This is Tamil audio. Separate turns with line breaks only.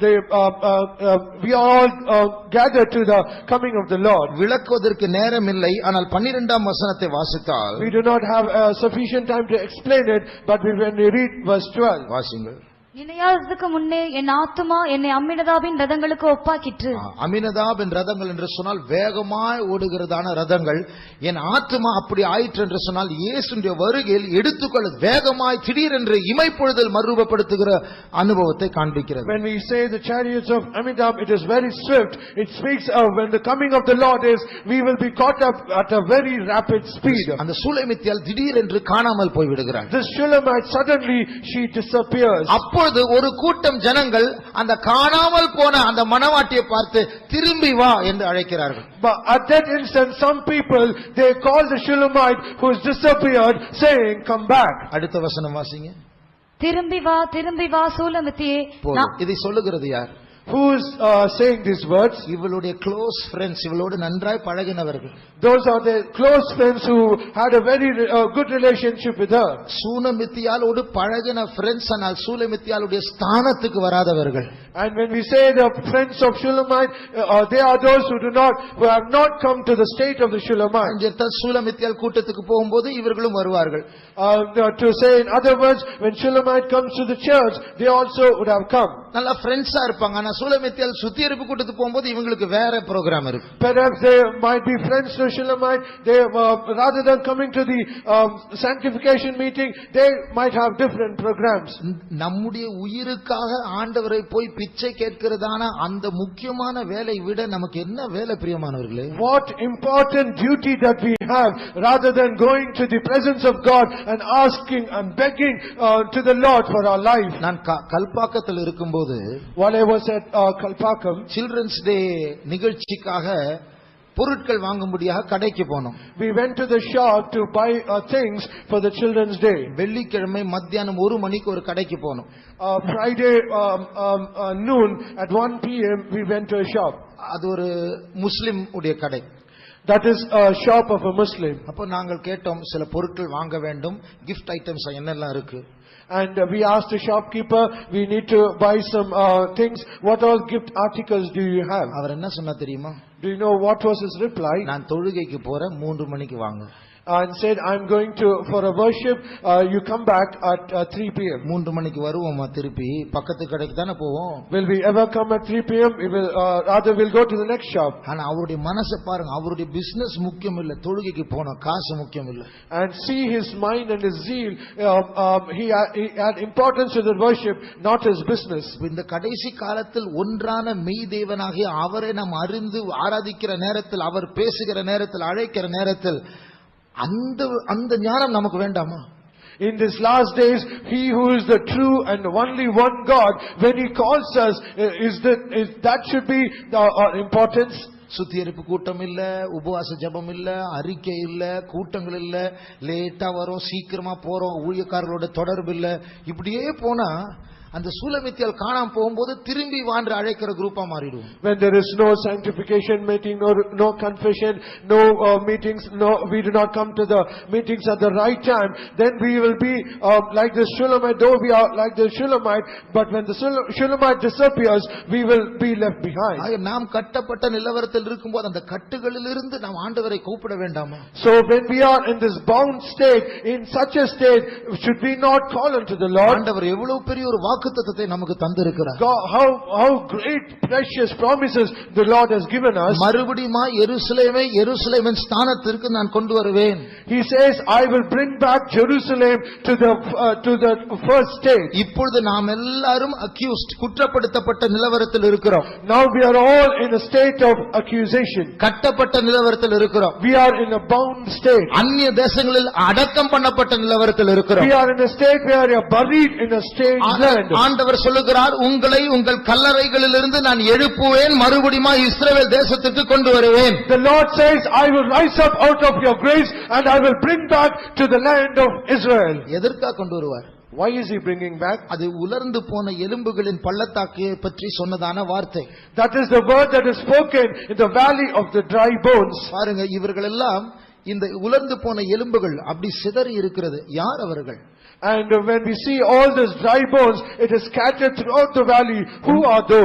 they, uh, uh, uh, we are all uh, gathered to the coming of the Lord.
விளக்குவதற்கு நேரம் இல்லை ஆனால் பன்னிரெண்டாம் வசனத்தை வாசித்தால்
We do not have uh, sufficient time to explain it, but we- when we read verse twelve.
வாசிங்கள்
இணையாததுக்கு முன்னே என் ஆத்துமா என்னை அம்மினதாபின் ரதங்களுக்கு ஒப்பாக்கிற்று
ஆ, அமினதாபின் ரதங்கள் என்று சொன்னால் வேகமாய் ஓடுகிறதான ரதங்கள் என் ஆத்துமா அப்படி ஆயிற்று என்று சொன்னால் இயேசுடைய வருகையில் எடுத்துக்கொள்ள வேகமாய் திடீரென்று இமைப்பொழுதல் மறுரூபப்படுத்துகிற அனுபவத்தை காண்பிக்கிறது
When we say the chariots of Amitabh, it is very swift. It speaks of when the coming of the Lord is, we will be caught up at a very rapid speed.
அந்த சூலைமித்தியால் திடீரென்று காணாமல் போய்விடுகிறார்
This Shulamite, suddenly she disappears.
அப்பொழுது ஒரு கூட்டம் ஜனங்கள் அந்த காணாமல் போன அந்த மனவாட்டியை பார்த்து திரும்பி வா என்று அழைக்கிறார்கள்
But at that instant, some people, they call the Shulamite who has disappeared, saying, "Come back."
அடுத்த வசனம் வாசிங்க
திரும்பி வா திரும்பி வா சூலமித்தியே
போதும்.
நான்-
இதை சொல்லுகிறது யார்
Who is uh, saying these words?
இவளுடைய க்ளோஸ் ஃப்ரெண்ட்ஸ் இவளோடு நன்றாய் பழகினவர்கள்
Those are the close friends who had a very uh, good relationship with her.
சூனமித்தியாலோடு பழகின ஃப்ரெண்ட்ஸ் ஆனால் சூலமித்தியாளுடைய ஸ்தானத்துக்கு வராதவர்கள்
And when we say the friends of Shulamite, uh, uh, they are those who do not, who have not come to the state of the Shulamite.
அஞ்சிருத்தால் சூலமித்தியால் கூட்டத்துக்கு போகும்போது இவர்களும் வருவார்கள்
Uh, To say in other words, when Shulamite comes to the church, they also would have come.
நல்லா ஃப்ரெண்ட்ஸா இருப்பாங்க ஆனா சூலமித்தியால் சுத்திகரிப்பு கூட்டத்துக்கு போகும்போது இவங்களுக்கு வேற ப்ரோக்ராம் இருக்கு
Perhaps they might be friends to Shulamite, they, uh, rather than coming to the um, sanctification meeting, they might have different programs.
நம்முடைய உயிருக்காக ஆண்டவரை போய் பிச்சை கேட்கிறதான அந்த முக்கியமான வேலை விட நமக்கு என்ன வேலை பிரியமானவர்களே
What important duty that we have, rather than going to the presence of God and asking and begging uh, to the Lord for our life.
நான் க- கல்பாக்கத்தில் இருக்கும்போது
While I was at uh, Kalpakkam,
children's day நிகழ்ச்சிக்காக பொருட்கள் வாங்கும்படியாக கடைக்கு போனோம்
we went to the shop to buy uh, things for the children's day.
வெள்ளிக்கிழமை மத்தியானம் ஒரு மணிக்கு ஒரு கடைக்கு போனோம்
Uh, Friday um, um, uh, noon, at 1 PM, we went to a shop.
அது ஒரு முஸ்லிம் உடைய கடை
That is a shop of a Muslim.
அப்போ நாங்கள் கேட்டோம் சில பொருட்கள் வாங்க வேண்டும் gift ஐட்டம்ஸ் என்னெல்லாம் இருக்கு
And uh, we asked the shopkeeper, we need to buy some uh, things, what all gift articles do you have?
அவர் என்ன சொன்னா தெரியுமா
Do you know what was his reply?
நான் தொழுகைக்கு போறேன் மூன்று மணிக்கு வாங்க
and said, "I'm going to, for a worship, uh, you come back at uh, 3 PM.
மூன்று மணிக்கு வருவோமா திருப்பி பக்கத்து கடைக்கு தானே போவோம்
Will we ever come at 3 PM? We will, uh, rather we'll go to the next shop."
ஆனா அவருடைய மனசை பாருங்க அவருடைய பிசினஸ் முக்கியம் இல்ல தொழுகைக்கு போன காசு முக்கியம் இல்ல
And see his mind and his zeal, um, um, he had- he had importance to the worship, not his business.
இப்ப இந்த கடைசி காலத்தில் ஒன்றான மெய் தேவனாகிய அவரை நாம் அறிந்து ஆராதிக்கிற நேரத்தில் அவர் பேசுகிற நேரத்தில் அழைக்கிற நேரத்தில் அந்த அந்த ஞானம் நமக்கு வேண்டாமா
In these last days, he who is the true and only one God, when he calls us, uh, is that, is, that should be the our importance.
சுத்திகரிப்பு கூட்டம் இல்ல உபவாச ஜெபம் இல்ல அறிக்கை இல்ல கூட்டங்கள் இல்ல லேட்டா வரோம் சீக்கிரமா போறோம் ஊழியக்காரர்களோட தொடர்பு இல்ல இப்படியே போனா அந்த சூலமித்தியால் காணாம போகும்போது திரும்பி வான்று அழைக்கிற குரூப்பா மாறிடுவோம்
When there is no sanctification meeting, no, no confession, no uh, meetings, no, we do not come to the meetings at the right time, then we will be uh, like the Shulamite, though we are like the Shulamite, but when the Shul- Shulamite disappears, we will be left behind.
ஆக நாம் கட்டப்பட்ட நிலவரத்தில் இருக்கும்போது அந்த கட்டுகளிலிருந்து நாம் ஆண்டவரை கூப்பிட வேண்டாமா
So when we are in this bound state, in such a state, should we not call unto the Lord?
ஆண்டவர் எவ்வளவு பெரிய ஒரு வாக்குத்தத்தத்தை நமக்கு தந்திருக்கிறார்
God, how, how great precious promises the Lord has given us.
மறுபடியுமா எருசலேமை எருசலேமின் ஸ்தானத்திற்கு நான் கொண்டு வருவேன்
He says, "I will bring back Jerusalem to the, uh, to the first state."
இப்பொழுது நாம் எல்லாரும் அக்யூஸ்ட் குற்றப்படுத்தப்பட்ட நிலவரத்தில் இருக்கிறோம்
Now we are all in a state of accusation.
கட்டப்பட்ட நிலவரத்தில் இருக்கிறோம்
We are in a bound state.
அந்நிய தேசங்களில் அடக்கம் பண்ணப்பட்ட நிலவரத்தில் இருக்கிறோம்
We are in a state where we are buried in a strange
ஆனால்
land.
ஆண்டவர் சொல்லுகிறார் உங்களை உங்கள் கல்லறைகளிலிருந்து நான் எழுப்புவேன் மறுபடியுமா இஸ்ரவேல் தேசத்துக்கு கொண்டு வருவேன்
The Lord says, "I will rise up out of your graves and I will bring back to the land of Israel."
எதற்காக கொண்டு வருவார்
Why is he bringing back?
அது உலர்ந்து போன எலும்புகளின் பள்ளத்தாக்கு பற்றி சொன்னதான வார்த்தை
That is the word that is spoken in the valley of the dry bones.
பாருங்க இவர்கள் எல்லாம் இந்த உலர்ந்து போன எலும்புகள் அப்படி சிதறி இருக்கிறது யார் அவர்கள்
And when we see all these dry bones, it is scattered throughout the valley. Who are those?